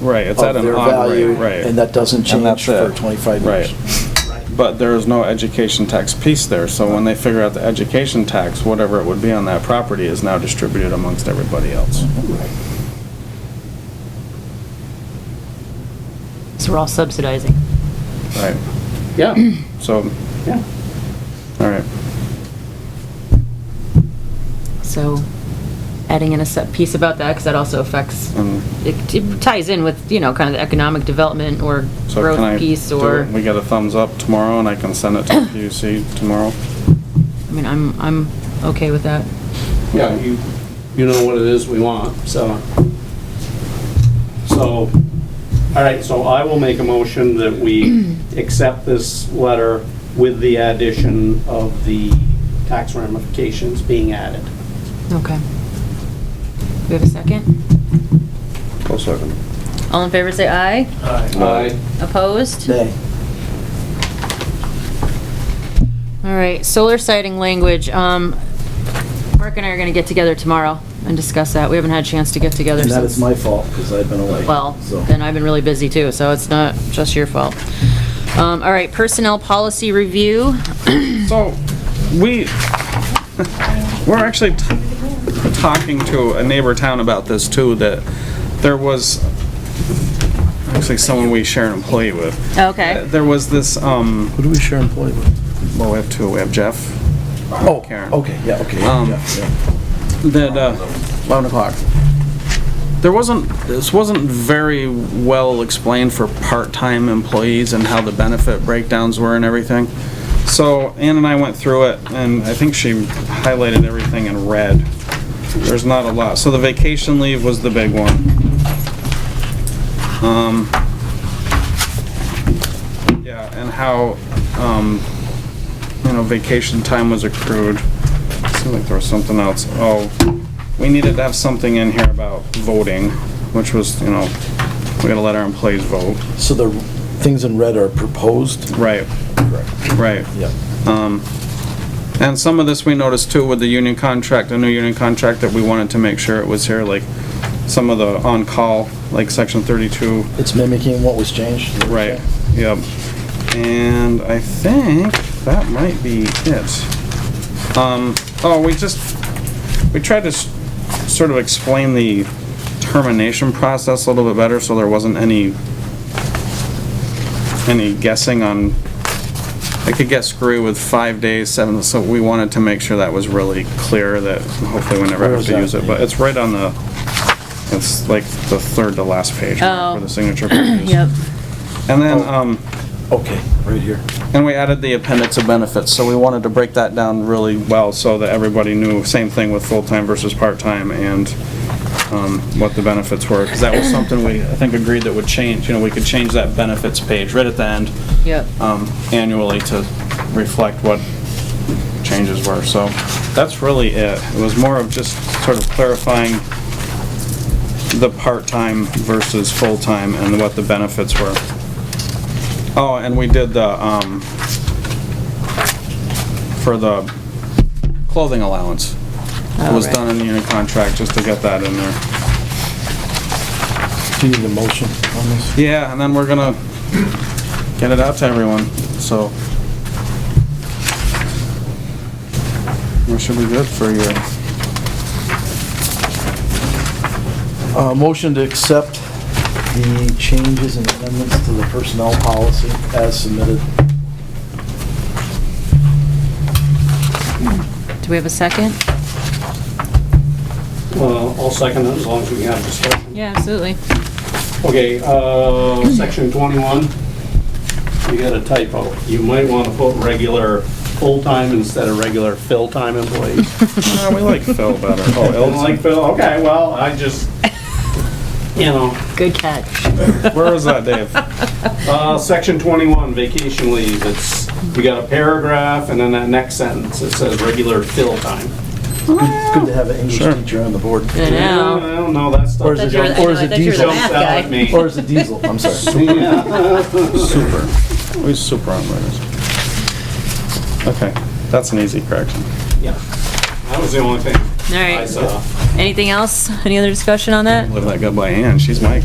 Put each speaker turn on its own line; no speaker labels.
Right, it's
of
at an
their
odd
value,
rate, right.
and that doesn't
And
change
that's
for
it.
25 years.
Right. But there is no education tax piece there, so when they figure out the education tax, whatever it would be on that property is now distributed amongst everybody else.
So we're all subsidizing.
Right,
Yeah,
so,
yeah.
all right.
So adding in a set piece about that, because that also affects,
Mm.
it it ties in with, you know, kind of the economic development or
So can I
growth piece
do
or,
it? We get a thumbs up tomorrow and I can send it to the PUC tomorrow?
I mean, I'm, I'm okay with that.
Yeah, you, you know what it is we want, so. So, all right, so I will make a motion that we accept this letter with the addition of the tax ramifications being added.
Okay. We have a second?
Close second.
All in favor, say aye.
Aye.
Opposed?
Nay.
All right, solar sighting language, um, Mark and I are gonna get together tomorrow and discuss that. We haven't had a chance to get together
And
since.
that is my fault, because I've been away.
Well,
so.
then I've been really busy too, so it's not just your fault. Um, all right, personnel policy review.
So, Oh, we, we're actually t- talking to a neighbor town about this too, that there was, actually someone we share an employee with.
Okay.
There was this, um,
Who do we share employee with?
well, we have two, we have Jeff,
Oh,
Karen.
okay, yeah, okay.
Um,
yeah, yeah.
that, uh,
11 o'clock.
there wasn't, this wasn't very well explained for part-time employees and how the benefit breakdowns were and everything. So Ann and I went through it, and I think she highlighted everything in red. There's not a lot. So the vacation leave was the big one. Um, Yeah, and how, um, you know, vacation time was accrued. Seemed like there was something else. Oh, we needed to have something in here about voting, which was, you know, we gotta let our employees vote.
So the things in red are proposed?
Right,
Correct.
right.
Yeah.
And some of this we noticed too with the union contract, a new union contract that we wanted to make sure it was here, like some of the on-call, like section thirty-two.
It's mimicking what was changed?
Right, yep. And I think that might be it. Um, oh, we just, we tried to s- sort of explain the termination process a little bit better, so there wasn't any, any guessing on, I could get screwy with five days, seven, so we wanted to make sure that was really clear, that hopefully we never
Where
have
is
to
that?
use it, but it's right on the, it's like the third to last page
Oh.
for the signature pages.
Yep.
And then,
Oh.
um,
Okay, right here.
and we added the appendix of benefits, so we wanted to break that down really well so that everybody knew, same thing with full-time versus part-time and, um, what the benefits were, because that was something we, I think, agreed that would change, you know, we could change that benefits page right at the end,
Yep.
um, annually to reflect what changes were, so that's really it. It was more of just sort of clarifying the part-time versus full-time and what the benefits were. Oh, and we did the, um, for the clothing allowance. It was
Alright.
done in the unit contract, just to get that in there.
Do you need a motion on this?
Yeah, and then we're gonna get it out to everyone, so. We should be good for your,
Uh, motion to accept the changes and amendments to the personnel policy as submitted.
Do we have a second?
Well, I'll second it as long as we have discussion.
Yeah, absolutely.
Okay, uh, section 21, you got a typo. You might want to put regular full-time instead of regular fill-time employees.
Nah, we like Phil better. Oh,
Don't
Elton,
like fill, okay, well, I just, you know.
Good catch.
where was that, Dave?
Uh, section 21, vacation leave, it's, we got a paragraph and then that next sentence, it says regular fill-time.
Good to have an English
Sure.
teacher on the board.
I
No,
know.
I don't know, that
Or
stuff
is it
That's your- I
jump-
know,
or is
I
it
thought you were the
diesel?
math
jumps out
guy.
at me.
Or is it diesel? I'm sorry.
Super. We're super on this. Okay, that's an easy correction.
Yeah. That was the only thing
All
I
right.
saw.
Anything else? Any other discussion on that?
Live that gut by hand, she's Mike.